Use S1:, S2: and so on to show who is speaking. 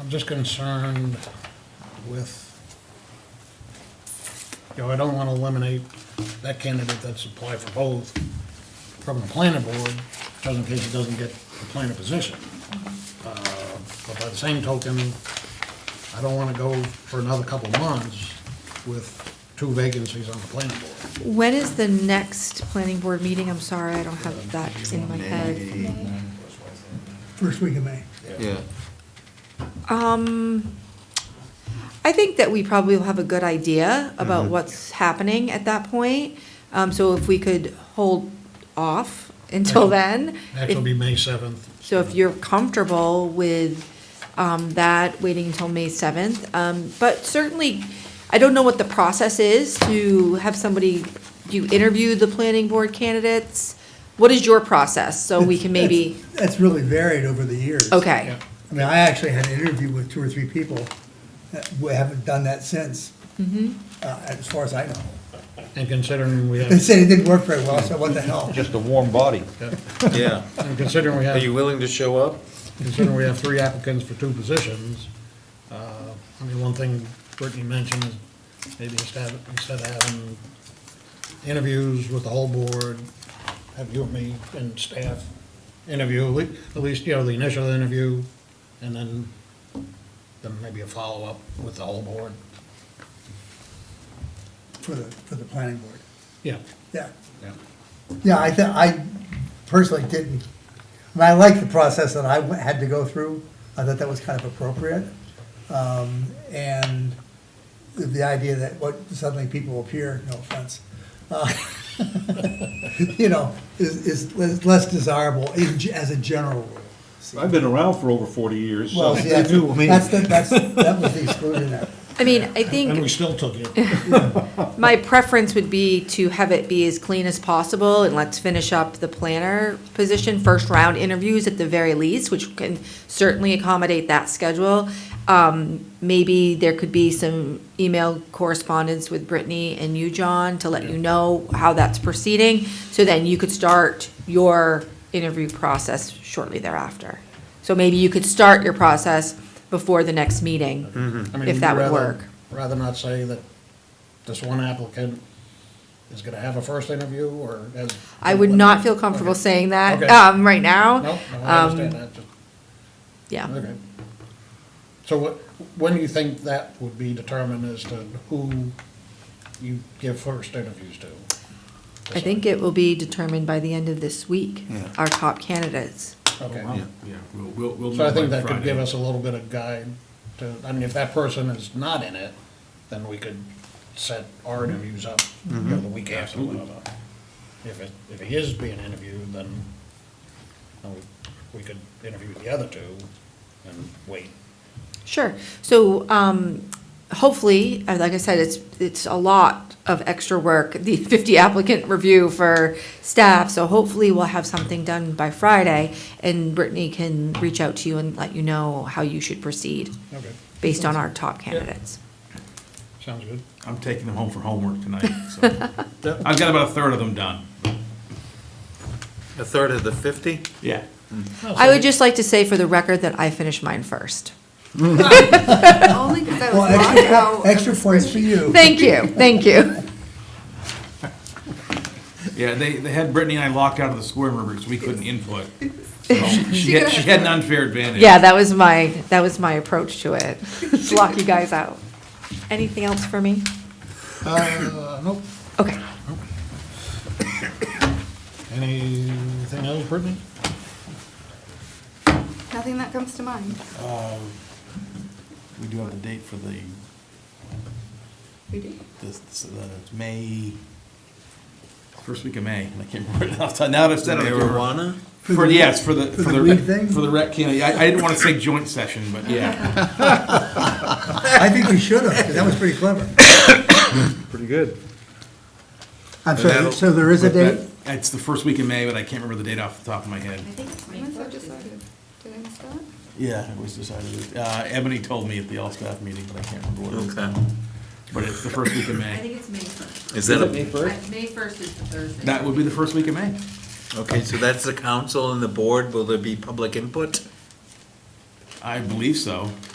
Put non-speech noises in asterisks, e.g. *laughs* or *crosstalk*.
S1: I'm just concerned with, you know, I don't want to eliminate that candidate that's applied for both from the planning board, just in case he doesn't get the planning position. Uh, But by the same token, I don't want to go for another couple of months with two vacancies on the planning board.
S2: When is the next planning board meeting? I'm sorry, I don't have that in my head.
S3: First week of May.
S4: Yeah,
S2: Um, I think that we probably will have a good idea about what's happening at that point. Um, so if we could hold off until then.
S1: Next will
S2: if-
S1: be May 7th.
S2: So if you're comfortable with um, that, waiting until May 7th, um, but certainly, I don't know what the process is to have somebody, you interview the planning board candidates? What is your process, so we can
S1: *laughs*
S2: maybe,
S3: That's- That's really varied over the years.
S2: okay,
S1: Yeah.
S3: I mean, I actually had an interview with two or three people. that- We haven't done that since, uh, as far as I know.
S1: And considering we
S3: *laughs* They
S1: have,
S3: said it didn't work very well, so what the hell?
S5: Just a warm body.
S4: yeah.
S1: and considering we
S4: Are
S1: have
S4: you willing to show up?
S1: considering we have three applicants for two positions, uh, I mean, one thing Brittany mentioned is maybe instead, of- instead of having interviews with the whole board, have you and me and staff interview, at le- at least, you know, the initial interview, and then, then maybe a follow-up with the whole board.
S3: For the, for the planning board,
S1: Yeah.
S3: yeah.
S1: Yeah.
S3: Yeah, I, thi- I personally didn't, I mean, I liked the process that I w- had to go through. I thought that was kind of appropriate. Um, And the- the idea that what, suddenly people appear, no offense, uh, *laughs* you know, is, is less- less desirable in ge- as a general rule.
S5: I've been around for over 40 years, so
S3: Well, see,
S5: I
S3: that's,
S5: do, I mean,
S3: that's, the- that's, that was the exclusionary.
S2: I mean, I
S1: And we
S2: think
S1: still took it.
S2: my preference would be to have it be as clean as possible, and let's finish up the planner position, first round interviews at the very least, which can certainly accommodate that schedule. Um, maybe there could be some email correspondence with Brittany and you, John, to let you know how that's proceeding. So then you could start your interview process shortly thereafter. So maybe you could start your process before the next meeting,
S1: Mm-hmm. I mean,
S2: if that would
S1: rather-
S2: work.
S1: Rather not say that this one applicant is gonna have a first interview, or has.
S2: I would not feel comfortable
S1: Okay.
S2: saying that
S1: Okay.
S2: um, right now.
S1: No, no, I understand
S2: Um,
S1: that, just,
S2: Yeah.
S1: okay. So what, when do you think that would be determined as to who you give first interviews to?
S2: I think it will be determined by the end of this week, our top candidates.
S1: Okay,
S6: Yeah, we'll, we'll, we'll know
S1: so I think
S6: by
S1: that could give
S6: Friday.
S1: us a little bit of guide to, I mean, if that person is not in it, then we could set our interviews up, you know, the week after,
S6: Absolutely.
S1: whatever. If it, if he is being interviewed, then, then we, we could interview the other two and wait.
S2: Sure. So um, hopefully, uh, like I said, it's, it's a lot of extra work, *laughs* the 50 applicant review for staff. So hopefully, we'll have something done by Friday, and Brittany can reach out to you and let you know how you should proceed
S1: Okay.
S2: based on our top candidates.
S1: Sounds good.
S6: I'm taking them home for homework tonight, so. I've got about a third of them done.
S4: A third of the 50?
S6: Yeah.
S2: I would just like to say for the record that I finished mine first.
S7: Only because I
S3: Well,
S7: was locked
S3: extra,
S7: out.
S3: extra points for you.
S2: Thank you, thank you.
S6: Yeah, they, they had Brittany and I locked out of the square room because we couldn't input. So She had, she had an unfair advantage.
S2: Yeah, that was my, that was my approach to it, to lock you guys out. Anything else for me?
S1: Uh, nope.
S2: Okay.
S1: Anything else, Brittany?
S7: Nothing that comes to mind.
S8: We do have the date for the,
S7: We do.
S8: this, this, uh, it's May,
S6: First week of May.
S8: I can't remember it off the top, now that I've said it. I can't remember.
S4: Marijuana?
S6: For, yes, for the, for
S3: the
S6: the,
S3: weed
S6: rec-
S3: thing?
S6: for the rec, you know, I, I didn't want to say joint session, but yeah.
S3: I think we should have, 'cause that was pretty clever.
S5: pretty good.
S3: I'm
S6: But
S3: sorry,
S6: that'll-
S3: so there is a
S6: but that-
S3: date?
S6: It's the first week of May, but I can't remember the date off the top of my head.
S7: I think it's May decided. Did I miss that?
S8: Yeah, it was decided, uh, Ebony told me at the all-staff meeting, but I can't remember what it was.
S4: Okay.
S6: But it's the first week of May.
S9: think it's May first.
S4: Is that
S8: May
S4: a,
S8: first?
S9: May first is the Thursday.
S6: That would be the first week of May.
S4: okay, so that's the council and the board. Will there be public input?
S6: I believe so.